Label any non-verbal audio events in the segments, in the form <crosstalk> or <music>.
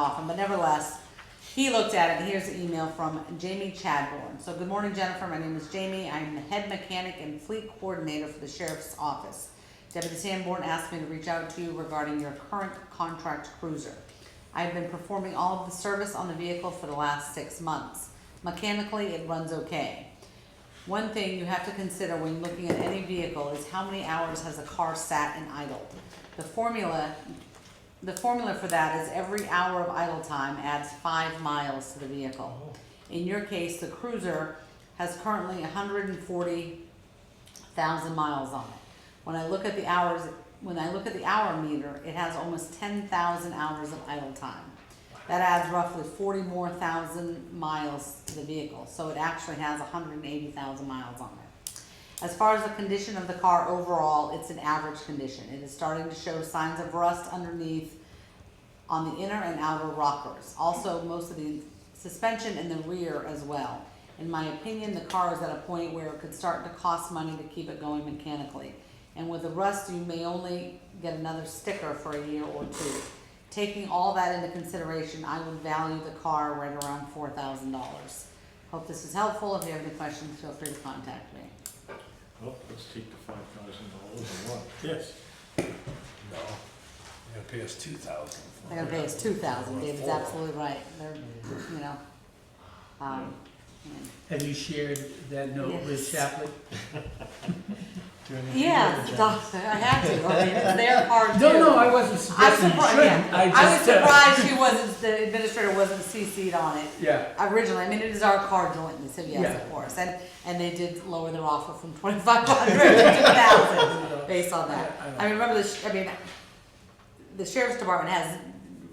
often, but nevertheless, he looked at it, and here's the email from Jamie Chadbourne. So, good morning, Jennifer. My name is Jamie. I'm the head mechanic and fleet coordinator for the sheriff's office. Deputy Sanborn asked me to reach out to you regarding your current contract cruiser. I've been performing all of the service on the vehicle for the last six months. Mechanically, it runs okay. One thing you have to consider when looking at any vehicle is how many hours has a car sat and idled. The formula, the formula for that is every hour of idle time adds five miles to the vehicle. In your case, the cruiser has currently hundred and forty thousand miles on it. When I look at the hours, when I look at the hour meter, it has almost ten thousand hours of idle time. That adds roughly forty more thousand miles to the vehicle, so it actually has hundred and eighty thousand miles on it. As far as the condition of the car overall, it's an average condition. It is starting to show signs of rust underneath on the inner and outer rockers. Also, most of the suspension in the rear as well. In my opinion, the car is at a point where it could start to cost money to keep it going mechanically. And with the rust, you may only get another sticker for a year or two. Taking all that into consideration, I would value the car right around four thousand dollars. Hope this is helpful. If you have any questions, feel free to contact me. Well, Oh, let's take the five thousand dollars and what? Yes. No, you're gonna pay us two thousand. They're gonna pay us two thousand, David's absolutely right, they're, you know, um, Have you shared that note Yes. with Chaplin? yeah, it's a doctor, I have to, I mean, it's <laughs> their part too. No, no, I wasn't I'm suggesting you surprised, shouldn't, yeah, I I was just, uh, surprised she wasn't, the administrator wasn't CC'd on it yeah, originally, I mean, it is our car jointly, so yes, Yeah. of course, and, and they did lower their offer from twenty-five hundred to two thousand, based on that. Yeah, I know. I mean, remember the, sh- I mean, the sheriff's department has,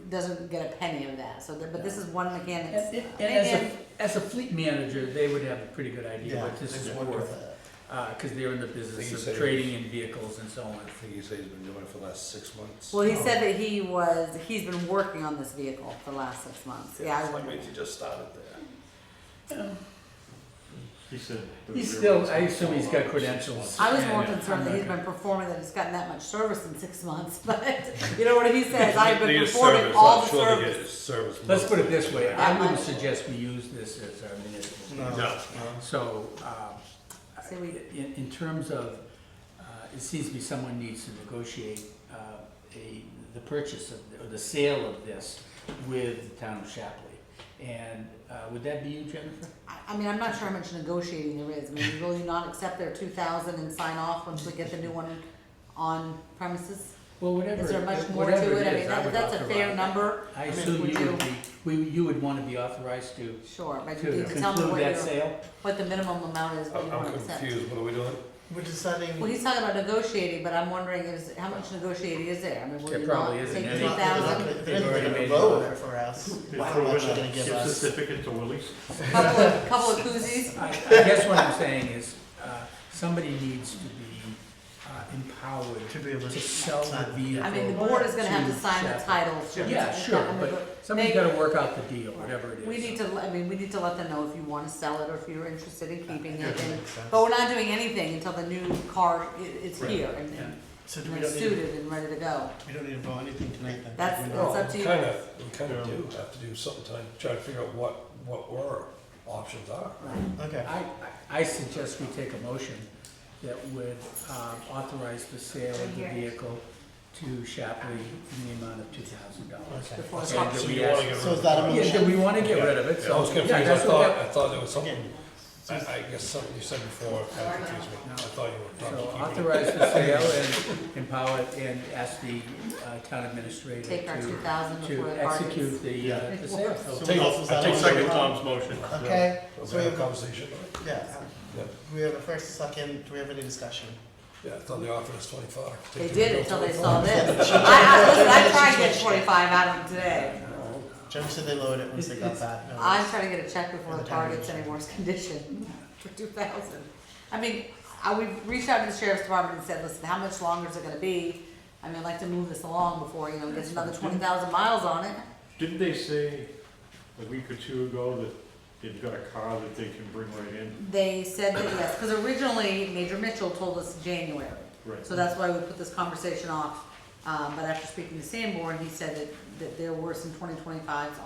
doesn't get a penny of that, so, the- but this is one and, mechanic's. and and as again, a, as a fleet manager, they would have a pretty good idea Yeah, what this is I worth. Uh, cause they're in the Think you business said of it trading in vehicles and so on. I think you said he's been doing it for the last six months. Well, he said that he was, he's been working on this vehicle for the last six months, yeah, I That wonder. means he just started there. He said. the He's rear still- wheel's I not assume he's full got on. credentials. I was more Yeah, yeah, concerned that I'm not he's been gonna- performing, that it's gotten that much service in six months, <laughs> but, you know what <laughs> he says, I've been Need a performing service, all I'm the sure they service. get service Let's put it monthly. this way, Yeah. I wouldn't suggest we use this as our municipal. No, no. So, um, So we- in, in terms of, uh, it seems to me someone needs to negotiate, uh, a, the purchase of, or the sale of this with the town of Shapley. And, uh, would that be you, Jennifer? I, I mean, I'm not sure how much negotiating there is, I mean, will you not accept their two thousand and sign off once we get the new one on premises? Well, whatever. Is there much more whatever to it, I is, mean, would that, that's a fair authorize- number, I I mean, assume would you would you- be, we, you would wanna be authorized to, sure, to but you need to tell me conclude what that your, sale? what the minimum amount is, what I'm you I'm wanna accept. confused, what are we doing? We're deciding, Well, he's talking about negotiating, but I'm wondering is, how much negotiating is there? I mean, will There you not probably take isn't two any. they're not, they're not thousand? gonna- They've they're not already gonna made vow it. there for us. They Wow, throw that's in not a gonna give gift us. certificate to Willie's. Couple of, couple of koozies? I, I guess what I'm saying is, uh, somebody needs to be, uh, empowered To be able to to sell the sign. vehicle. I mean, the board is gonna have to to sign the Sheffield. title. Yeah, sure, I mean, but somebody's gotta work out the deal, whatever it is. We need to, I mean, we need to let them know if you wanna sell it or if you're interested in keeping Yeah, it. that and- makes sense. But we're not doing anything until the new car i- is Right. here and- Yeah. and So do we and don't need, suited and ready to go. we don't need to vote anything tonight then? That's- We're not- Well, it's up to you. Kind of, we kind Yeah. of do have to do something to try to figure out what, what our options are. Okay, I, I suggest we take a motion that would um, authorize the sale of the vehicle to Shapley in the amount of two thousand dollars. okay. Before the And cops- that So we you wanna ask- get rid So of is that a the- Yeah, that we wanna get rid of it, Yeah, I so. was confused, yeah, I that's what thought, that- I thought there was Yeah. something, I, I guess something you said before, uh, kind of confused me, I thought you So were. authorize the sale and empower it and ask the uh, town administrator to. Take our two thousand to before the car gets. execute the, uh, the sale. So Take, what else is I that take on? second Tom's motion. Okay, so So we we had a have, a- conversation, right? yeah, Yeah. we have a first, second, do we have any discussion? Yeah, I thought they offered us twenty-five. They Take did it, until go they saw <laughs> 25. this. I, I, listen, I tried to get twenty-five out of them today. Jim said they lowered it once they got that. No, I'm trying to get a check before the car gets any worse <laughs> condition for two thousand. I mean, I, we've reached out to the sheriff's department and said, listen, how much longer is it gonna be? I mean, I'd like to move this along before, you know, it gets another twenty thousand miles on it. Didn't they say a week or two ago that they've got a car that they can bring right in? They said that, yes, because originally Major Mitchell told us January. Right. So that's why we put this conversation off Um, but after speaking to Sanborn, he said that, that there were some twenty twenty-fives